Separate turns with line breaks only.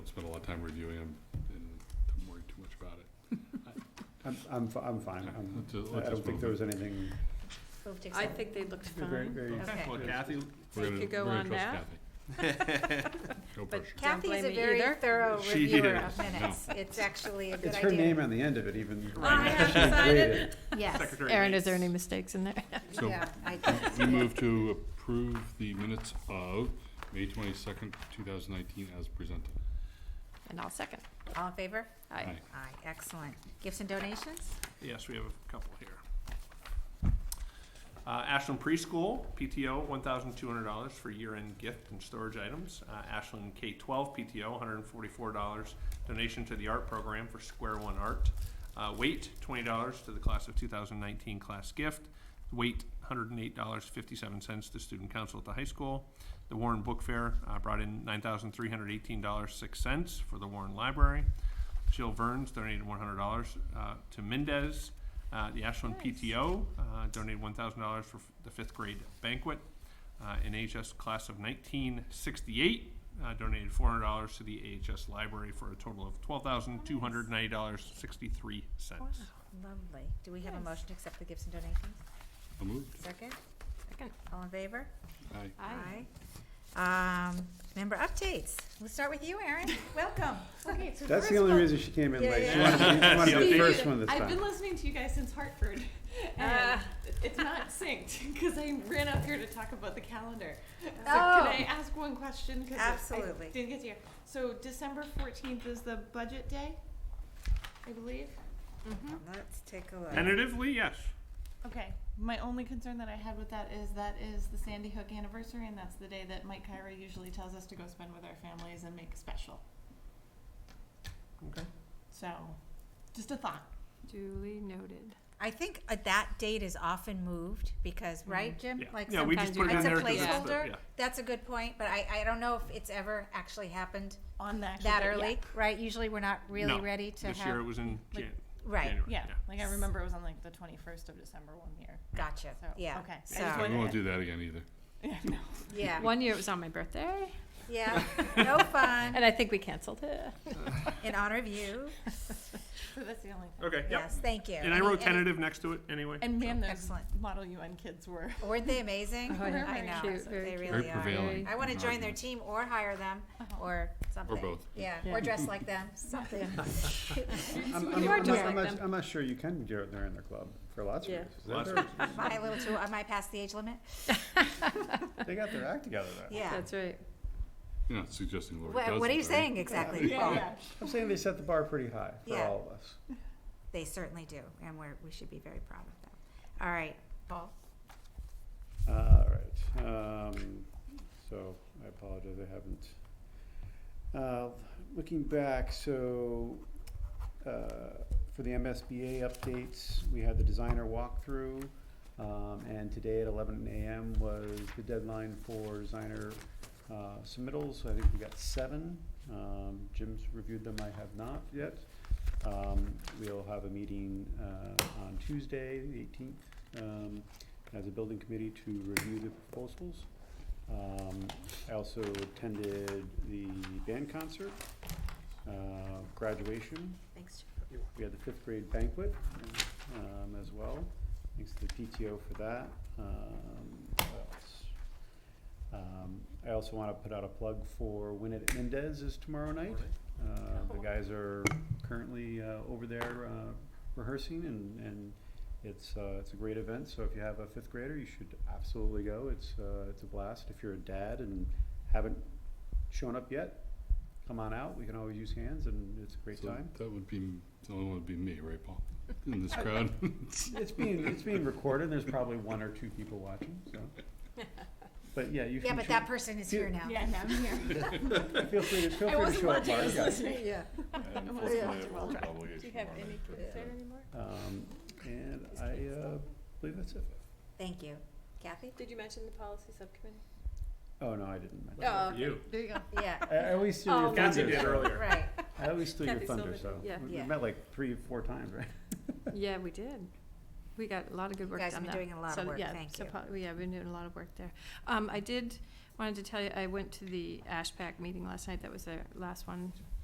time reviewing them and don't worry too much about it.
I'm, I'm, fi- I'm fine. I'm-
Let's just-
I
let's
don't
just
think there
move
was anything,
Move to
I
accept.
think they looked
They're very-
fine.
very-
Okay.
Well, Kathy,
We're
They
gonna-
could
we're
go
gonna
on
trust
now.
Kathy. No pressure.
But Don't
Kathy is
blame
a
me
very
either.
thorough
She
reviewer
is.
of minutes. It's actually a good
it's
idea.
her name on the end of it even.
I have
She
decided.
created it.
Yes,
Secretary
Erin, is
Bates.
there any mistakes in there?
So
yeah, I did.
we move to approve the minutes of May twenty-second, two thousand nineteen as presented.
And I'll second.
All in favor?
Aye.
Aye.
Aye, excellent. Gifts and donations?
Yes, we have a couple here. Uh, Ashland Preschool, PTO, one thousand two hundred dollars for year-end gift and storage items. Uh, Ashland K twelve PTO, one hundred and forty-four dollars donation to the art program for Square One Art. Uh, weight, twenty dollars to the class of two thousand nineteen class gift. Weight, hundred and eight dollars fifty-seven cents to student council at the high school. The Warren Book Fair, uh, brought in nine thousand three hundred eighteen dollars six cents for the Warren Library. Jill Verns donated one hundred dollars uh, to Mendez. Uh, the Ashland PTO uh, donated one thousand dollars for f- the fifth grade banquet. Uh, an AHS class of nineteen sixty-eight uh, donated four hundred dollars to the AHS library for a total of twelve thousand two hundred ninety dollars sixty-three
Wow,
cents.
Lovely. Do we have a
Yes.
motion to accept the gifts and donations?
So moved.
Second?
Second.
All in favor?
Aye.
Aye. Um, member updates. We'll start with you, Erin. Welcome.
Okay, so
That's the
first
only
of all-
reason she came in
Yeah,
late. She
yeah.
wanted to be- she wanted to be the
Steve,
first one this
I've been
time.
listening to you guys since Hartford, and
Ah.
it's not synced because I ran up here to talk about the calendar. So
Oh.
can I ask one question? 'Cause I-
Absolutely.
I didn't get to you. So December fourteenth is the budget day, I believe.
Let's take a look.
Tentatively, yes.
Okay. My only concern that I had with that is that is the Sandy Hook anniversary, and that's the day that Mike Kyra usually tells us to go spend with our families and make special.
Okay.
So, just a thought.
Duly noted.
I think uh, that date is often moved because, right, Jim?
Yeah.
Like
Yeah, we
sometimes
just
sometimes
put it
we-
in
It's a
there 'cause it's the-
placeholder.
yeah.
That's a good point, but I, I don't know if it's ever actually happened
On the actual
that
day, yeah.
early, right? Usually we're not really
No,
ready to
This year it
have,
was in
Like-
Jan-
right,
January,
Yeah,
yeah.
like I remember it was on like the twenty-first of December one year.
gotcha,
So,
yeah.
okay. I just
So,
Yeah, We won't do that again either.
Yeah, no.
yeah,
One year it was on my birthday,
yeah, no fun,
and I think we canceled it.
in honor of you,
So that's the only thing.
Okay, yep.
yes, thank you.
And I
Any-
wrote
any-
tentative next to it anyway.
And man, those
Excellent.
Model UN kids were.
Weren't they amazing?
Oh, yeah.
I know,
Cute, very
they
cute.
really
Very
are.
prevailing.
I wanna join their
arguments.
Mm-hmm.
team or hire them, or something.
both.
Yeah,
Yeah.
or dress like them, something.
I'm, I'm,
You are
I'm,
just
not- I'm
like
not,
them.
I'm not sure you can do it there in the club for lots of
Yeah.
reasons.
Lots
They're-
of
Am I a little too, am I past the age limit?
They got their act together there.
Yeah.
That's right.
You're not suggesting Laura does
What, what
it,
are you
you?
saying exactly, Paul?
I'm saying they set the bar pretty high for
Yeah.
all of us.
They certainly do, and we're, we should be very proud of them. All right, Paul?
All right, um, so I apologize, I haven't. Uh, looking back, so, uh, for the MSBA updates, we had the designer walkthrough. Um, and today at eleven AM was the deadline for designer, uh, submittals, I think we got seven. Um, Jim's reviewed them, I have not yet. Um, we'll have a meeting, uh, on Tuesday, the eighteenth, um, as a building committee to review the proposals. Um, I also attended the band concert, uh, graduation,
Thanks.
we had the fifth grade banquet, um, as well. Thanks to the PTO for that. Um, what else? Um, I also wanna put out a plug for Win It at Mendez is tomorrow night. Uh, the guys are currently, uh, over there, uh, rehearsing and, and it's, uh, it's a great event, so if you have a fifth grader, you should absolutely go. It's, uh, it's a blast. If you're a dad and haven't shown up yet, come on out. We can always use hands and it's a great
So
time.
That would be, the only one would be me, right, Paul? In this crowd?
It's being, it's being recorded, there's probably one or two people watching, so. But yeah, you
Yeah,
can,
but that person is here now.
Yeah, no, I'm here.
show- feel free to, feel free
I
to
wasn't
show up,
watching, I was
Mark.
listening.
Yeah.
Unfortunately, it was
Do you have any uh, kids there anymore?
Um, and I, uh, believe that's it.
Thank you. Kathy?
Did you mention the policy subcommittee?
Oh, no, I didn't. mention
Oh,
that.
You.
There you go.
Yeah,
I, I always steal your
Oh,
Kathy
thunder.
did
so-
earlier.
right.
I always steal your
Kathy
thunder, so.
Silver, yeah.
We-
Yeah.
We met like three, four times, right?
Yeah, we did. We got a lot of good
You
work done
guys
there.
have been doing a lot of
So,
work,
yeah,
thank
so
you.
po- Yeah, been doing a lot of work there. Um, I did, wanted to tell you, I went to the ASHPAC meeting last night, that was their last one